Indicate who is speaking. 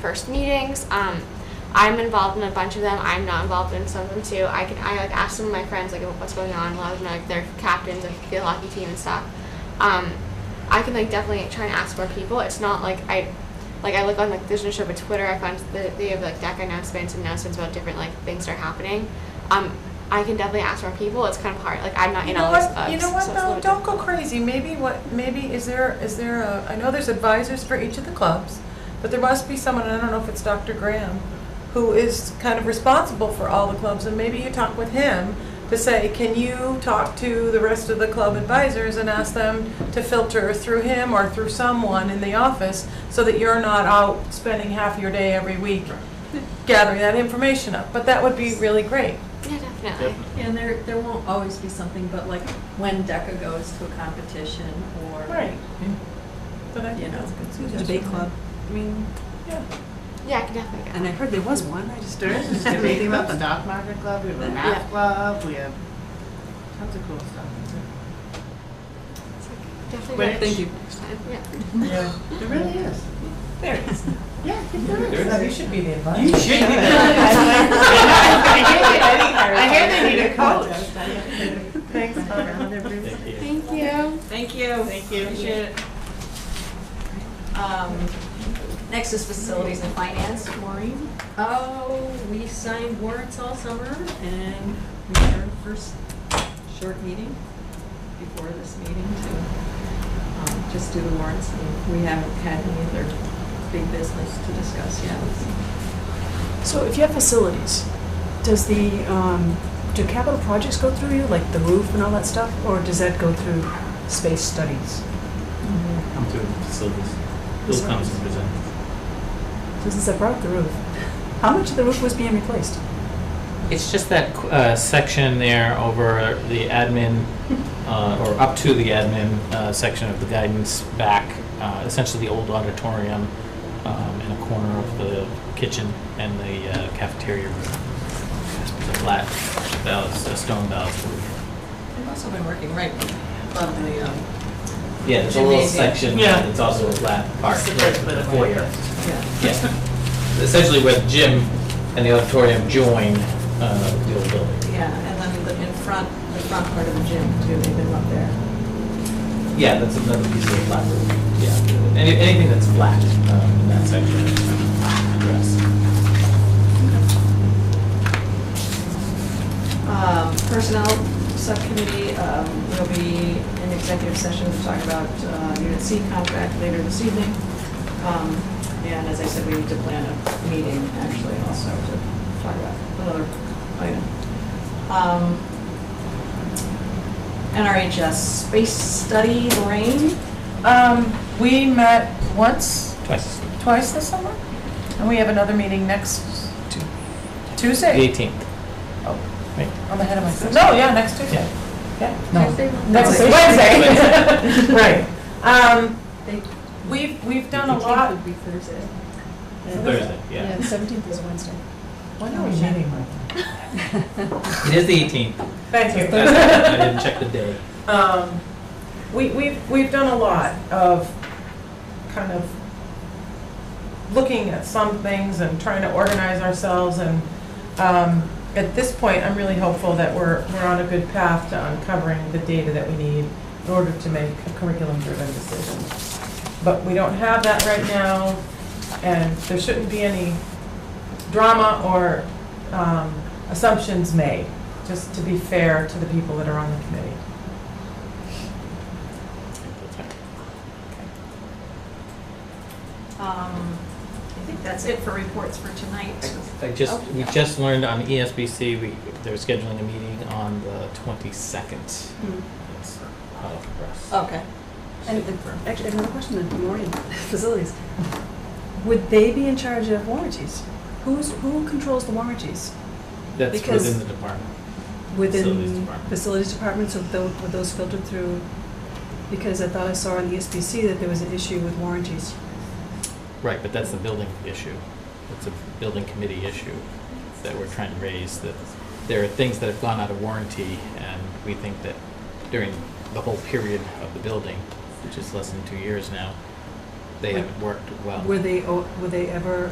Speaker 1: first meetings. Um, I'm involved in a bunch of them. I'm not involved in some of them too. I can I like ask some of my friends like what's going on. A lot of them are, like they're captains of the hockey team and stuff. Um, I can like definitely try and ask more people. It's not like I like I look on like there's no show but Twitter. I found that they have like deck announcements and announcements about different like things that are happening. Um, I can definitely ask more people. It's kind of hard. Like I'm not
Speaker 2: You
Speaker 1: in
Speaker 2: know
Speaker 1: all those
Speaker 2: what,
Speaker 1: clubs.
Speaker 2: you know
Speaker 1: so
Speaker 2: what
Speaker 1: it's a
Speaker 2: though,
Speaker 1: little
Speaker 2: don't
Speaker 1: different.
Speaker 2: go crazy, maybe what, maybe, is there, is there a, I know there's advisors for each of the clubs, but there must be someone, and I don't know if it's Dr. Graham, who is kind of responsible for all the clubs, and maybe you talk with him to say, can you talk to the rest of the club advisors and ask them to filter through him or through someone in the office, so that you're not out spending half your day every week gathering that information up, but that would be really great.
Speaker 1: Yeah, definitely.
Speaker 3: And there, there won't always be something, but like when DECA goes to a competition or,
Speaker 2: But I
Speaker 3: you
Speaker 2: think
Speaker 3: know,
Speaker 2: that's a good
Speaker 3: the
Speaker 2: suggestion.
Speaker 3: debate club. I mean,
Speaker 2: Yeah.
Speaker 1: Yeah, I can definitely.
Speaker 3: and I heard there was one, I just.
Speaker 4: There is this debate about the dog market club, we have a
Speaker 1: Yeah.
Speaker 4: math club, we have tons of cool stuff.
Speaker 1: It's, like, definitely.
Speaker 4: But
Speaker 1: worth
Speaker 3: Thank you.
Speaker 1: it. Yeah.
Speaker 4: There really is.
Speaker 2: There it is.
Speaker 4: Yeah, there
Speaker 2: Now,
Speaker 4: is.
Speaker 2: you should be the advisor.
Speaker 4: You should be I hear they need a coach.
Speaker 2: Thanks, Hunter.
Speaker 1: Thank you.
Speaker 5: Thank you. Thank you. Next is facilities and finance, Maureen.
Speaker 3: Oh, we signed warrants all summer and we had our first short meeting before this meeting to um, just do the warrants. and We haven't had any other big business to discuss yet.
Speaker 6: So if you have facilities, does the, um, do capital projects go through you, like the roof and all that stuff? Or does that go through space studies?
Speaker 7: Come to facilities. Bill comes and presents.
Speaker 6: So since I brought the roof, how much of the roof was being replaced?
Speaker 7: It's just that uh, section there over the admin, uh, or up to the admin uh, section of the guidance back, uh, essentially the old auditorium um, in a corner of the kitchen and the uh, cafeteria room. The flat, ballast, uh, stone ballast roof.
Speaker 3: I've also been working right
Speaker 5: Love the, um,
Speaker 7: Yeah, there's a little
Speaker 5: Gymnasium.
Speaker 7: section
Speaker 4: Yeah.
Speaker 7: that's also a flat part,
Speaker 5: It's the
Speaker 7: right,
Speaker 5: first bit
Speaker 7: the
Speaker 5: of
Speaker 7: foyer.
Speaker 5: it.
Speaker 3: Yeah.
Speaker 7: Yeah. Essentially where the gym and the auditorium join uh, the old building.
Speaker 5: yeah, and then the, in front, the front part of the gym too, they've been up there.
Speaker 7: Yeah, that's another piece of the flat roof. Yeah, Any, anything that's flat um, in that section is addressed.
Speaker 5: Um, Personnel Subcommittee, um, there'll be an executive session to talk about uh, Unit C contract later this evening. Um, And as I said, we need to plan a meeting actually also to talk about another item. Um, NRHS Space Study, Lorraine?
Speaker 2: Um, we met once,
Speaker 7: Twice.
Speaker 2: twice this summer, and we have another meeting next Tu-
Speaker 7: The
Speaker 2: Tuesday.
Speaker 7: 18th.
Speaker 2: I'm ahead of myself. No, yeah, next Tuesday.
Speaker 7: Yeah.
Speaker 2: Next
Speaker 3: Wednesday.
Speaker 2: Wednesday. Right. Um,
Speaker 3: They-
Speaker 2: we've, we've done a
Speaker 3: Eighteenth
Speaker 2: lot.
Speaker 3: would be Thursday.
Speaker 7: Thursday, yeah.
Speaker 6: seventeenth is Wednesday.
Speaker 2: When are we meeting, Michael?
Speaker 7: It is the 18th.
Speaker 2: Thank you.
Speaker 7: That's- I didn't check the day.
Speaker 2: Um, we, we've, we've done a lot of kind of looking at some things and trying to organize ourselves and, um, at this point, I'm really hopeful that we're, we're on a good path to uncovering the data that we need in order to make a curriculum-driven decision. But we don't have that right now, and there shouldn't be any drama or, um, assumptions made, just to be fair to the people that are on the committee.
Speaker 5: Um, I think that's it for reports for tonight.
Speaker 7: I just, we just learned on E ESBC, we, they're scheduling a meeting on the 22nd. That's hot off the press.
Speaker 3: Okay.
Speaker 6: Hmm. And, and actually, I have another question then, Maureen, facilities.
Speaker 5: Mm-hmm.
Speaker 6: Would they be in charge of warranties? Who's, who controls the warranties?
Speaker 7: That's
Speaker 6: because-
Speaker 7: within the department. Facilities
Speaker 6: within
Speaker 7: department.
Speaker 6: facilities departments, so tho- were those filtered through? Because I thought I saw on E the SBC that there was an issue with warranties.
Speaker 7: Right, but that's the building issue. It's a building committee issue that we're trying to raise, that there are things that have gone out of warranty, and we think that during the whole period of the building, which is less than two years now, they haven't worked well.
Speaker 6: Were they, o- were they ever